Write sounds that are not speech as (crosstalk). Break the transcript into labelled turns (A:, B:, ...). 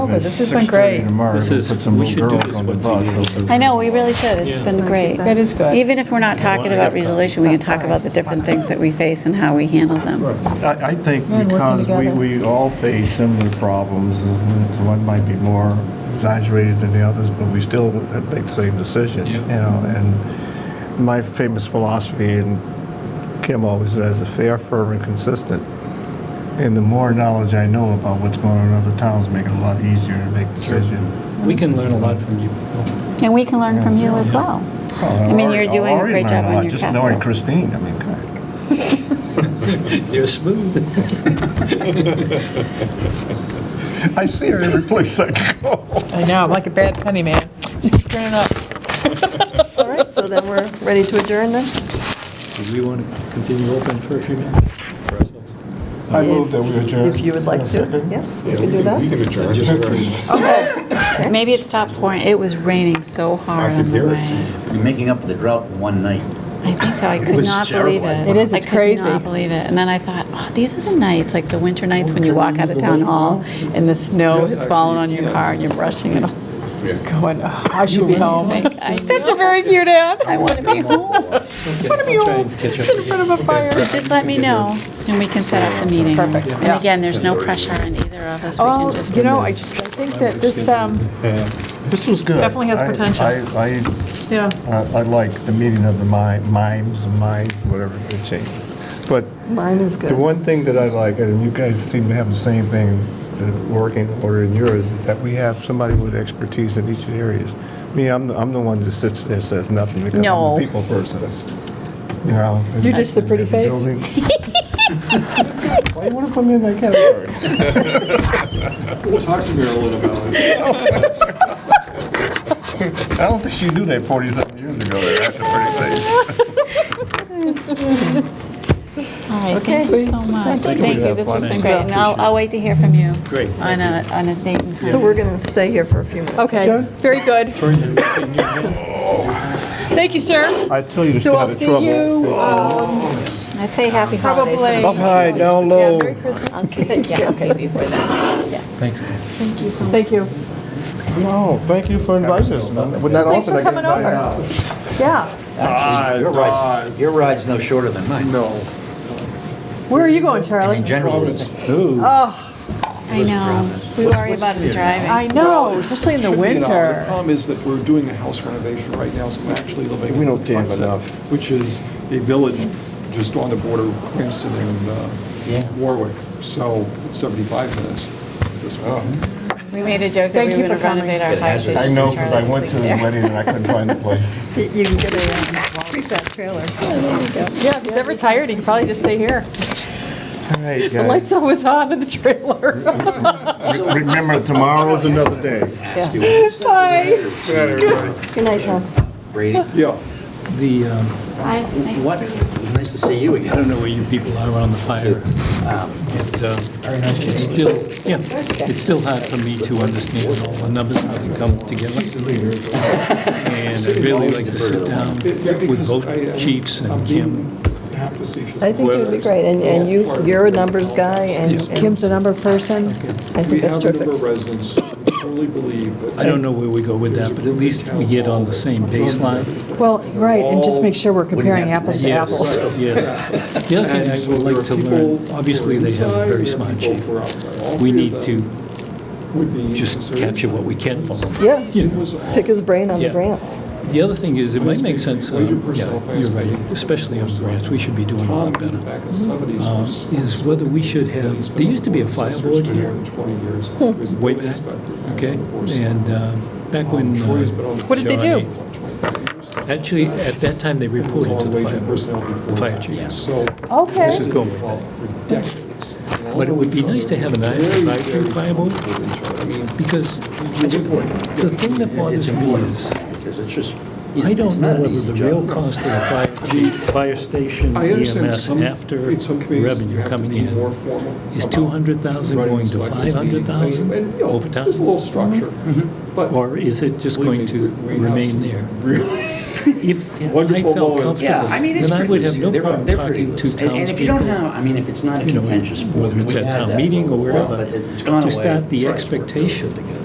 A: Oh,
B: over. Oh, This has been great.
C: tomorrow,
D: This
C: we'll
D: is-
C: put some
D: we
C: little
D: should do
C: girls
D: this
C: on the
D: once a
C: bus.
D: year.
C: They'll-
A: I know, we really should. It's been great.
B: That is good.
A: Even if we're not talking about resolution, we can talk about the different things that we face and how we handle them.
C: I, I think
B: working
C: because we,
B: together.
C: we all face similar problems, and one might be more exaggerated than the others, but we still make the same decision, you
D: Yeah.
C: know, and my famous philosophy, and Kim always says, a fair, firm, and consistent. And the more knowledge I know about what's going on in other towns, make it a lot easier to make decisions.
D: We can learn a lot from you people.
A: And we can learn from you as well.
B: Oh,
A: I mean, you're doing a great job on your
C: Just knowing
A: capital.
C: Christine, I mean, God.
D: You're smooth.
C: I see her every place I go.
B: I know, I'm like a bad penny, man. Just turn it up.
E: All right, so then we're ready to adjourn then?
D: Do we want to continue open for a few minutes? for ourselves?
C: I move that we adjourn.
E: If you would like to, yes, we can do that.
F: We can adjourn.
D: Just-
A: Maybe it stopped pouring. It was raining so hard
F: I
A: on
F: can
A: the
F: hear it.
A: way.
G: You're making up for the drought in one night.
A: I think so. I could
G: was
A: not believe it.
G: terrible.
B: It is,
A: I
B: it's
A: could
B: crazy.
A: not believe it. And then I thought, oh, these are the nights, like the winter nights when you walk out of town hall and the snow has fallen on your car and you're brushing it off. (laughs)
B: Going, "Ugh, I should be
F: (laughs)
B: home.
A: I
B: That's a very cute ad.
A: I want to be home.
B: What a
D: I'll try and
B: mule.
D: catch up
B: Sit in
D: to you.
B: front of a fire.
A: So just let me know and we can set up the meeting.
B: Perfect, yeah.
A: And again, there's no pressure on either of us. We can
B: Oh,
A: just.
B: you know, I just, I think that this, um,
C: This was good.
B: Definitely has
C: I-
B: potential.
C: I, I
B: yeah,
C: I I like the meeting of the mi- mimes, minds, whatever it changes. But
E: Mine is good.
C: the one thing that I like, and you guys seem to have the same thing, the working order in yours, is that we have somebody with expertise in each of the areas. Me, I'm, the- I'm the one that sits there, says nothing because I'm
A: No.
C: a people person. You know, and-
B: You're just the pretty
C: and the
B: face. (laughs)
C: building. Why you want to put me in that category?
F: Talk to me a little about it.
C: I don't think she knew that 47 years ago, that that's a pretty face.
A: All right, thank you
C: See?
A: so much.
C: Thank you.
A: Thank you,
C: Have
A: this
C: fun.
A: has been great. And I'll, I'll wait to hear from you.
D: Great,
A: On a, on a date and time.
E: So we're going to stay here for a few minutes.
B: okay, very good. Thank you, sir.
C: I tell you to stay
B: So
C: out
B: I'll
C: of
B: see
C: trouble.
B: you, um,
A: I'd say happy holidays. but
B: probably,
C: Up high, down
B: yeah,
C: low.
B: Merry Christmas.
A: Yeah, I'll see you for that.
D: Thanks.
B: Thank you.
C: No, thank you for inviting us. We're not
B: Thanks
C: often
B: for
C: I get
B: coming
C: invited
B: over.
C: out.
E: Yeah.
G: Actually, your ride's, your ride's no shorter than mine. No.
B: Where are you going,
G: And
B: Charlie?
G: in general, it's
D: Ooh.
B: Oh,
A: I know. We worry about the driving.
B: I know, especially in the
F: Should be an hour. The
B: winter.
F: problem is that we're doing a house renovation right now, so we're actually living.
C: We
F: in
C: don't damn
F: Tucson,
C: enough.
F: Which is a village just on the border of Cranston and
G: Yeah.
F: uh, Warwick, so it's 75 minutes. This way.
A: We made a joke that
B: Thank
A: we
B: you
A: were going
B: for
A: to
B: coming.
A: renovate our fire station.
C: I know, because I
A: Charlie
C: went
A: was
C: to the
A: sleeping there.
C: wedding and I couldn't find
B: (laughs)
C: the place.
E: You you can get a prefab trailer.
B: Yeah, if he's ever tired, he can probably just stay here.
C: All right,
B: The lights
C: guys.
B: always on in the trailer. (laughs)
C: Re- Remember, tomorrow's another day.
G: ask you what you said.
B: Bye.
E: Good night, Tom.
G: Brady,
F: Yeah.
D: The, um,
A: Hi, nice to
G: what,
A: see you.
G: nice to see you
D: I
G: again.
D: don't know where you people are on the fire. It, um, It's still, yeah, it's still hard for me to understand all the numbers, how they come together. And I'd really like to sit down
F: Yeah,
D: with
F: because I-
D: both
F: I-
D: chiefs
F: I'm
D: and Kim.
F: being facetious.
E: I think it would be great, and, and you, you're a numbers guy, and
D: Yes.
E: and
B: Kim's a number person.
E: I
F: We
E: think that's
F: have a number
E: terrific.
F: of residents who truly believe that.
D: I don't know where we go with that, but at least we get on the same baseline.
B: Well, right, and just make sure we're comparing
G: have
B: apples to
D: Yes,
B: apples.
D: yes. The other thing
F: And
D: I
F: so
D: would
F: there
D: like
F: are
D: to
F: people
D: learn,
F: who
D: obviously,
F: are
D: they have a
F: inside,
D: very
F: there are
D: smart
F: people
D: chief.
F: who are outside. All
D: We
F: three of
D: need to
F: them would be
D: just
F: considered-
D: capture what we can from them.
E: Yeah,
F: It was all-
E: pick his brain on the
D: Yeah.
E: grants.
D: The other thing is, it might make sense, uh,
F: Wage and
D: yeah,
F: personnel plans
D: you're right,
F: committee.
D: especially on grants, we should be doing a
F: Tom,
D: lot
F: back in
D: better.
F: the 70s,
D: um,
F: was-
D: is whether we should have, there used to be a fire board here, way back, okay? And uh, back when. uh,
B: What did they do?
D: Johnny- Actually, at that time, they reported to the fire, board, the fire chief.
B: Okay.
D: This is going way back. But it would be nice to have an advisory fire board, because the thing that bothers me is,
G: Because it's just, you know,
D: I
G: it's
D: don't
G: not
D: know
G: an
D: whether
G: easy
D: the
G: job.
D: real cost of the fire chief, fire station,
F: I understand
D: EMS,
F: some,
D: E after
F: in some communities, you
D: revenue
F: have to
D: coming
F: be more
D: in.
F: formal.
D: Is
F: about
D: 200,000
F: running
D: going to
F: selectmen's meeting,
D: 500,000
F: and, you know,
D: over time? Mm-hmm.
F: There's a little structure, but.
D: Or is it just going to
F: believe me, we- we have
D: remain
F: some
D: there?
F: real-
D: If I
F: Wonderful
D: felt
F: moments.
D: comfortable,
G: Yeah, I mean, it's
D: then I
G: pretty
D: would have
G: loose.
D: no
G: They're-
D: problem
G: they're pretty
D: talking to
G: loose. And- And if you don't
D: townspeople,
G: have, I mean, if it's not a
D: you know,
G: contentious sport.
D: whether it's
G: we
D: at
G: had
D: town
G: that
D: meeting or
G: for a while,
D: wherever,
G: but it's gone
D: to
G: away.
D: start the
G: Sorry, it's worked really
D: expectation
G: good together.